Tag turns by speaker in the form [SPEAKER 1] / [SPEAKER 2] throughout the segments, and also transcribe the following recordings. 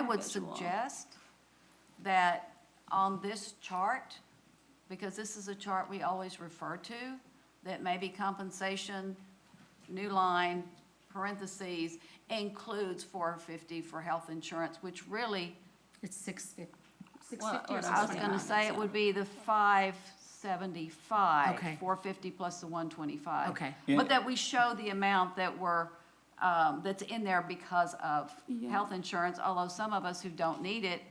[SPEAKER 1] would
[SPEAKER 2] individual.
[SPEAKER 1] suggest that on this chart, because this is a chart we always refer to, that maybe compensation, new line, parentheses, includes four fifty for health insurance, which really,
[SPEAKER 3] It's six fif- six
[SPEAKER 2] Well,
[SPEAKER 3] fifty or
[SPEAKER 2] what
[SPEAKER 1] I
[SPEAKER 3] something.
[SPEAKER 1] was gonna
[SPEAKER 2] Sixty-nine,
[SPEAKER 1] say it
[SPEAKER 2] yeah.
[SPEAKER 1] would be the five seventy-five.
[SPEAKER 3] Okay.
[SPEAKER 1] Four fifty plus the one twenty-five.
[SPEAKER 3] Okay.
[SPEAKER 1] But that we show the amount that we're, um, that's in there because of
[SPEAKER 2] Yeah.
[SPEAKER 1] health insurance, although some of us who don't need it,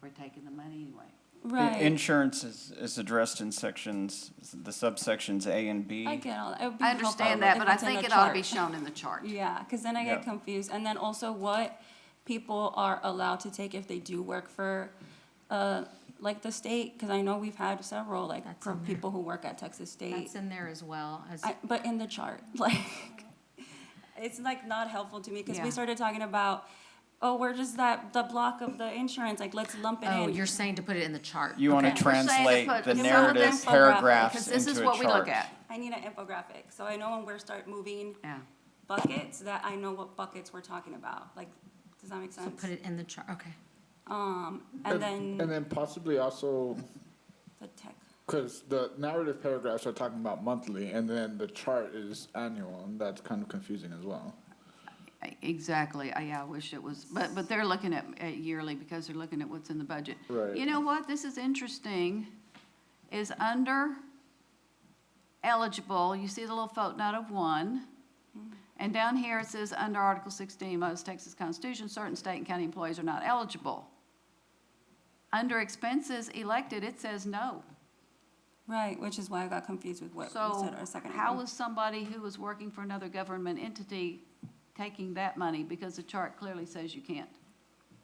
[SPEAKER 1] we're taking the money anyway.
[SPEAKER 2] Right.
[SPEAKER 4] Insurance is, is addressed in sections, the subsections A and B.
[SPEAKER 2] I get all, it would be
[SPEAKER 1] I
[SPEAKER 2] helpful
[SPEAKER 1] understand that,
[SPEAKER 2] if
[SPEAKER 1] but I
[SPEAKER 2] it's in
[SPEAKER 1] think
[SPEAKER 2] a
[SPEAKER 1] it ought to be
[SPEAKER 2] chart.
[SPEAKER 1] shown in the chart.
[SPEAKER 2] Yeah, because then I get
[SPEAKER 4] Yeah.
[SPEAKER 2] confused. And then also what people are allowed to take if they do work for, uh, like the state, because I know we've had several, like,
[SPEAKER 3] That's
[SPEAKER 2] for
[SPEAKER 3] in there.
[SPEAKER 2] people who work at Texas State.
[SPEAKER 3] That's in there as well as,
[SPEAKER 2] I, but in the chart, like, it's like not helpful to me because
[SPEAKER 1] Yeah.
[SPEAKER 2] we started talking about, oh, where does that, the block of the insurance, like, let's lump it in.
[SPEAKER 3] oh, you're saying to put it in the chart.
[SPEAKER 4] You want to
[SPEAKER 3] Okay.
[SPEAKER 1] We're saying to
[SPEAKER 4] translate
[SPEAKER 1] put
[SPEAKER 4] the
[SPEAKER 1] some of
[SPEAKER 4] narrative
[SPEAKER 2] them-
[SPEAKER 4] paragraphs
[SPEAKER 1] Because
[SPEAKER 4] into a chart.
[SPEAKER 1] this is what we look at.
[SPEAKER 2] I need an infographic, so I know when we're start moving
[SPEAKER 1] Yeah.
[SPEAKER 2] buckets, that I know what buckets we're talking about, like, does that make
[SPEAKER 3] So
[SPEAKER 2] sense?
[SPEAKER 3] put it in the chart, okay.
[SPEAKER 2] Um, and
[SPEAKER 5] And
[SPEAKER 2] then
[SPEAKER 5] then possibly also,
[SPEAKER 2] the tech,
[SPEAKER 5] because the narrative paragraphs are talking about monthly, and then the chart is annual, and that's kind of confusing as well.
[SPEAKER 1] I- Exactly, I, yeah, I wish it was, but, but they're looking at, at yearly because they're looking at what's in the budget.
[SPEAKER 5] Right.
[SPEAKER 1] You know what, this is interesting, is under eligible, you see the little footnote of one, and down here it says, under Article sixteen, most Texas Constitution, certain state and county employees are not eligible. Under expenses elected, it says no.
[SPEAKER 2] right, which is why I got confused with what we
[SPEAKER 1] So
[SPEAKER 2] said our second.
[SPEAKER 1] how
[SPEAKER 2] item.
[SPEAKER 1] was somebody who was working for another government entity taking that money? Because the chart clearly says you can't.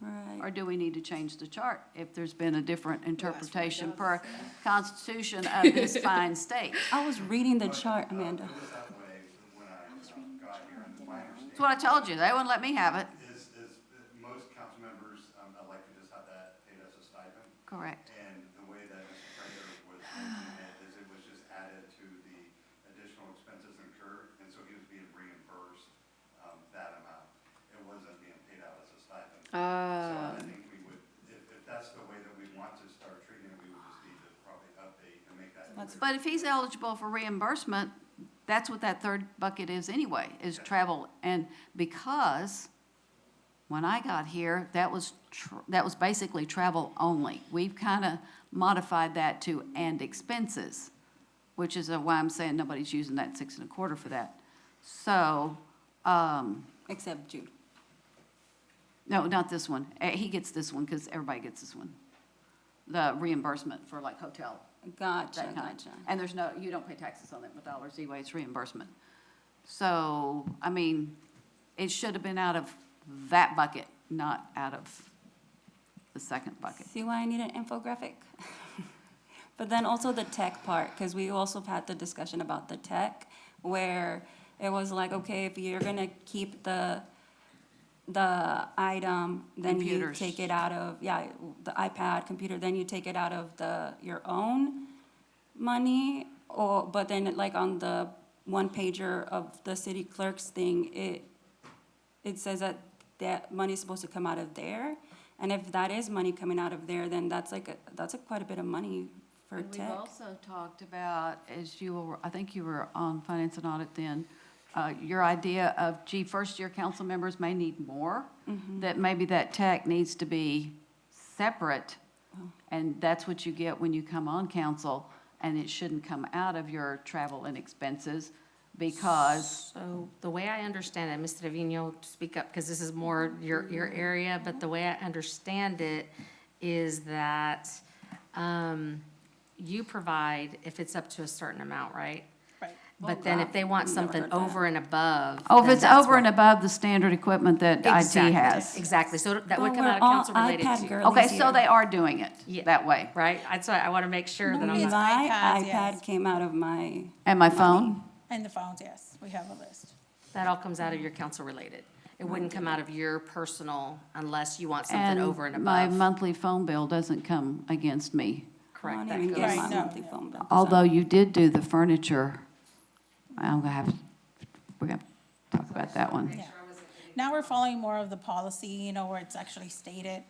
[SPEAKER 1] Or
[SPEAKER 2] Right,
[SPEAKER 1] do we need to change the chart if there's been a different interpretation per constitution of this fine state?
[SPEAKER 2] I was reading the chart, Amanda.
[SPEAKER 6] It was that way when I um, got here, and my
[SPEAKER 1] That's what
[SPEAKER 6] understanding
[SPEAKER 1] I told you, they wouldn't let me have it.
[SPEAKER 6] is, is that most council members um, elected just had that paid as a stipend,
[SPEAKER 1] Correct.
[SPEAKER 6] and the way that Mr. Prater was making it is it was just added to the additional expenses incurred, and so he was being reimbursed um, that amount. It wasn't being paid out as a stipend. So I think we would, if, if that's the way that we want to start treating it, we would just need to probably update and make that.
[SPEAKER 2] Let's-
[SPEAKER 1] But if he's eligible for reimbursement, that's what that third bucket is anyway, is travel. And because when I got here, that was, tr- that was basically travel only. We've kind of modified that to and expenses, which is why I'm saying nobody's using that six and a quarter for that. So, um,
[SPEAKER 2] Except Jude.
[SPEAKER 1] no, not this one. Eh, He gets this one because everybody gets this one. The reimbursement for like hotel
[SPEAKER 2] Gotcha,
[SPEAKER 1] that kind.
[SPEAKER 2] gotcha.
[SPEAKER 1] And there's no, you don't pay taxes on it with dollars anyway, it's reimbursement. So, I mean, it should have been out of that bucket, not out of the second bucket.
[SPEAKER 2] See why I need an infographic? But then also the tech part, because we also have had the discussion about the tech, where it was like, okay, if you're gonna keep the, the item, then you
[SPEAKER 1] Computers.
[SPEAKER 2] take it out of, yeah, the iPad, computer, then you take it out of the, your own money, or, but then like on the one pager of the city clerk's thing, it, it says that that money is supposed to come out of there. And if that is money coming out of there, then that's like, a- that's a quite a bit of money for
[SPEAKER 1] And we've
[SPEAKER 2] tech.
[SPEAKER 1] also talked about, as you were, I think you were on finance and audit then, uh, your idea of, gee, first-year council members may need more,
[SPEAKER 3] Mm-hmm.
[SPEAKER 1] that maybe that tech needs to be separate,
[SPEAKER 3] Oh.
[SPEAKER 1] and that's what you get when you come on council, and it shouldn't come out of your travel and expenses, because,
[SPEAKER 3] So the way I understand it, Mr. Trevino, speak up, because this is more your, your area, but the way I understand it is that um, you provide if it's up to a certain amount, right? Right. But then if they want
[SPEAKER 2] Well, I've never
[SPEAKER 3] something
[SPEAKER 2] heard that.
[SPEAKER 3] over and above.
[SPEAKER 1] oh, if
[SPEAKER 3] then
[SPEAKER 1] it's
[SPEAKER 3] that's
[SPEAKER 1] over and
[SPEAKER 3] what-
[SPEAKER 1] above the standard equipment that
[SPEAKER 3] Exactly,
[SPEAKER 1] IT has.
[SPEAKER 3] Exactly, so that would
[SPEAKER 2] But
[SPEAKER 3] come
[SPEAKER 2] we're
[SPEAKER 3] out of
[SPEAKER 2] all
[SPEAKER 3] council related
[SPEAKER 2] iPad
[SPEAKER 3] to you,
[SPEAKER 2] girlies
[SPEAKER 1] Okay, so
[SPEAKER 2] here.
[SPEAKER 1] they are doing
[SPEAKER 3] Yeah.
[SPEAKER 1] it that way.
[SPEAKER 3] right? That's why I want to make sure that I'm not.
[SPEAKER 2] My
[SPEAKER 7] iPads, yes.
[SPEAKER 2] iPad came out of my,
[SPEAKER 1] And my phone,
[SPEAKER 7] And the phones, yes, we have a list.
[SPEAKER 3] That all comes out of your council related. It wouldn't come out of your personal unless you want something
[SPEAKER 1] and
[SPEAKER 3] over and
[SPEAKER 1] my
[SPEAKER 3] above.
[SPEAKER 1] monthly phone bill doesn't come against me.
[SPEAKER 2] I
[SPEAKER 3] Correct,
[SPEAKER 2] don't
[SPEAKER 3] that
[SPEAKER 2] even
[SPEAKER 3] goes-
[SPEAKER 2] get my
[SPEAKER 7] Right, no,
[SPEAKER 2] monthly phone bill. so-
[SPEAKER 1] Although you did do the furniture, I'm gonna have, we're gonna talk about that one.
[SPEAKER 7] Yeah. Now we're following more of the policy, you know, where it's actually stated